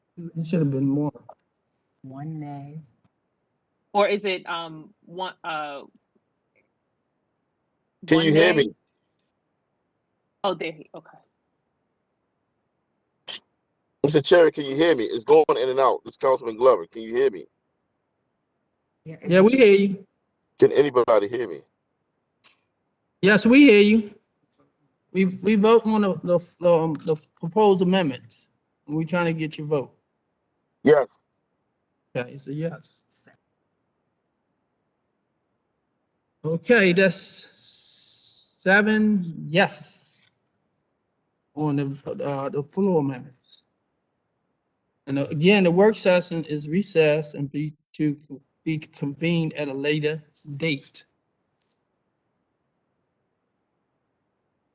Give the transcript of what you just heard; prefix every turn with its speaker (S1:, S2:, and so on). S1: It should have been more.
S2: One nay.
S3: Or is it um one uh?
S4: Can you
S3: one
S4: hear
S3: nay?
S4: me?
S3: Oh, there he. Okay.
S4: Mr. Cherry, can you hear me? It's going in and out. This is Councilman Glover, can you hear me?
S1: Yeah, we hear you.
S4: Can anybody hear me?
S1: Yes, we hear you. We, we vote on the, the, um, the proposed amendments. We're trying to get your vote.
S4: Yes.
S1: Okay, it's a yes. Okay, that's seven yes on the, uh, the floor amendments. And uh, again, the work session is recessed and be to be convened at a later date.